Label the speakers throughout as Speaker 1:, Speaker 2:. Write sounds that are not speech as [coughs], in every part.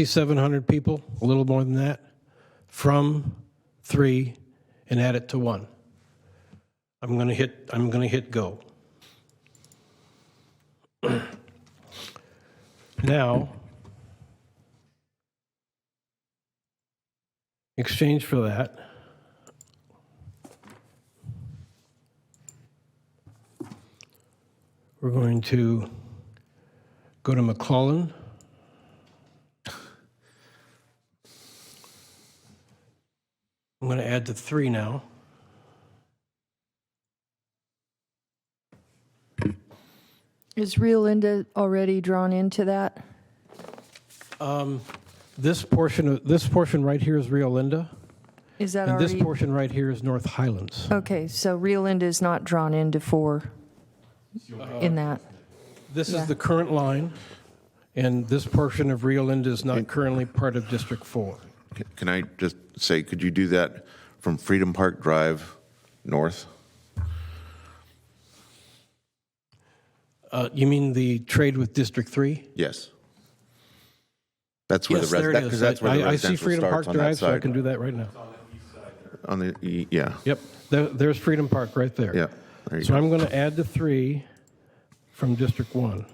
Speaker 1: 6,700 people, a little more than that, from three and add it to one. I'm going to hit, I'm going to hit go. [clears throat] Now, exchange for that, we're going to go to McClellan. I'm going to add the three now.
Speaker 2: Is Rio Linda already drawn into that?
Speaker 1: This portion, of this portion right here is Rio Linda,
Speaker 2: Is that
Speaker 1: and this
Speaker 2: already?
Speaker 1: portion right here is North Highlands.
Speaker 2: Okay, so Rio Linda is not drawn into four in that.
Speaker 1: This
Speaker 2: Yeah.
Speaker 1: is the current line, and this portion of Rio Linda is not currently part of District 4.
Speaker 3: Can I just say, could you do that from Freedom Park Drive north?
Speaker 1: Uh, You mean the trade with District 3?
Speaker 3: Yes. That's where the,
Speaker 1: Yes, there
Speaker 3: res-
Speaker 1: it
Speaker 3: that-
Speaker 1: is.
Speaker 3: cause that's where
Speaker 1: I-
Speaker 3: the
Speaker 1: I- I see
Speaker 3: residential
Speaker 1: Freedom Park
Speaker 3: starts on that
Speaker 1: Drive, so I can
Speaker 3: side.
Speaker 1: do that right now.
Speaker 3: On the, e- yeah,
Speaker 1: Yep, there- there's Freedom Park right there.
Speaker 3: yeah, there you
Speaker 1: So
Speaker 3: go.
Speaker 1: I'm going to add the three from District 1.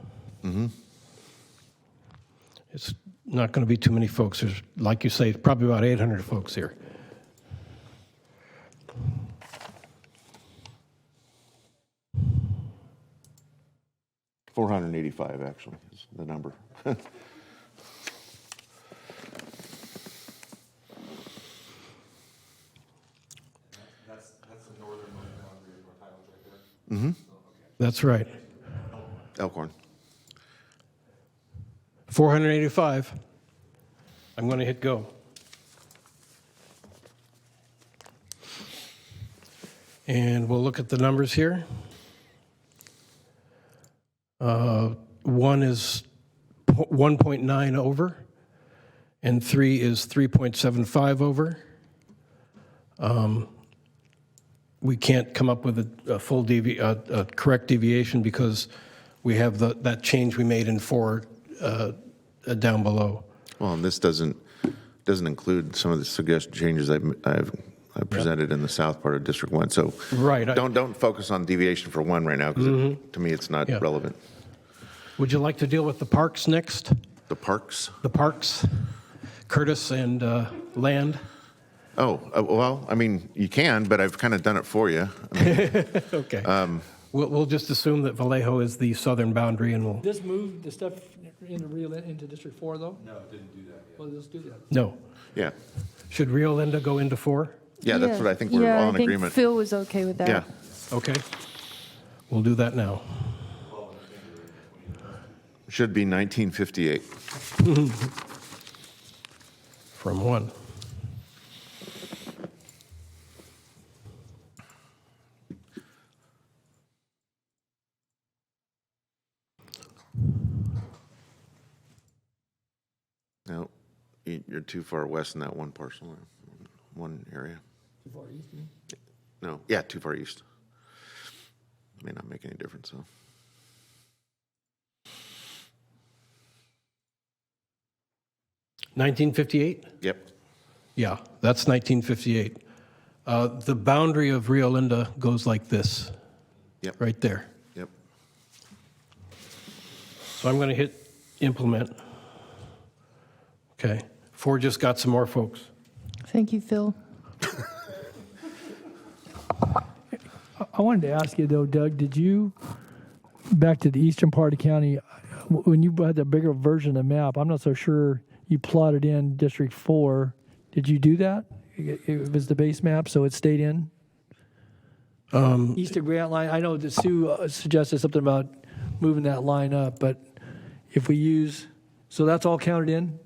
Speaker 1: It's not going to be too many folks. There's, like you say, probably about 800 folks here.
Speaker 3: Four hundred and eighty-five actually is the number. [laughs]
Speaker 1: That's right.
Speaker 3: Elkhorn.
Speaker 1: 485. I'm going to hit go. And we'll look at the numbers here. Uh, One is po- 1.9 over, and three is 3.75 over. Um, We can't come up with a, a full devi, a, a correct deviation because we have the, that change we made in four uh, uh, down below.
Speaker 3: Well, and this doesn't, doesn't include some of the suggested changes I've, I've I presented in the south part of District One, so.
Speaker 1: Right, I-
Speaker 3: Don't, don't focus on deviation for one right now, because to me, it's not
Speaker 1: Yeah.
Speaker 3: relevant.
Speaker 1: Would you like to deal with the parks next?
Speaker 3: The parks?
Speaker 1: The parks, Curtis and uh, Land?
Speaker 3: Oh, uh, well, I mean, you can, but I've kind of done it for you.
Speaker 1: Okay. We'll, we'll just assume that Vallejo is the southern boundary and we'll,
Speaker 4: This moved the stuff into Rio, into District Four, though? No, it didn't do that yet. Well, let's do that.
Speaker 1: no.
Speaker 3: Yeah,
Speaker 1: Should Rio Linda go into four?
Speaker 3: yeah, that's what I think we're
Speaker 2: Yeah,
Speaker 3: all in
Speaker 2: think
Speaker 3: agreement.
Speaker 2: Phil was okay with that.
Speaker 3: Yeah,
Speaker 1: Okay. We'll do that now.
Speaker 3: should be 1958.
Speaker 1: from one.
Speaker 3: No, you- you're too far west in that one parcel, uh, one area.
Speaker 4: Too far east, you mean?
Speaker 3: No, yeah, too far east. May not make any difference, though.
Speaker 1: Nineteen fifty-eight?
Speaker 3: Yep,
Speaker 1: Yeah, that's nineteen fifty-eight. Uh, the boundary of Rio Linda goes like this.
Speaker 3: Yep.
Speaker 1: Right there.
Speaker 3: yep.
Speaker 1: So I'm going to hit implement. Okay, four just got some more folks.
Speaker 2: Thank you, Phil.
Speaker 4: I wanted to ask you though, Doug, did you, back to the eastern part of county, w- when you had the bigger version of map, I'm not so sure you plotted in District Four. Did you do that? It it was the base map, so it stayed in?
Speaker 1: Um,
Speaker 4: East of Grant Line, I know that Sue uh, suggested something about moving that line up, but if we use, so that's all counted in,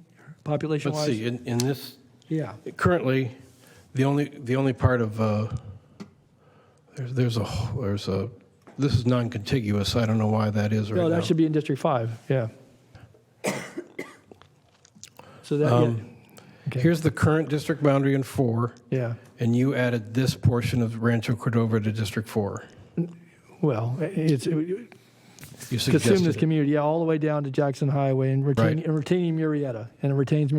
Speaker 4: population
Speaker 1: Let's
Speaker 4: wise?
Speaker 1: see, in, in this,
Speaker 4: Yeah.
Speaker 1: currently, the only, the only part of, uh, there's, there's a, there's a, this is non-contiguous, I don't know why that is right
Speaker 4: No,
Speaker 1: now.
Speaker 4: that should be in District Five, yeah. [coughs] So that, yeah,
Speaker 1: Um,
Speaker 4: okay.
Speaker 1: Here's the current district boundary in four,
Speaker 4: yeah,
Speaker 1: and you added this portion of Rancho Cordova to District Four.
Speaker 4: well, i- it's, it-
Speaker 1: You
Speaker 4: consume
Speaker 1: suggested
Speaker 4: this
Speaker 1: it.
Speaker 4: community, yeah, all the way down to Jackson Highway and retaining,
Speaker 1: Right.
Speaker 4: and retaining Murrieta, and it retains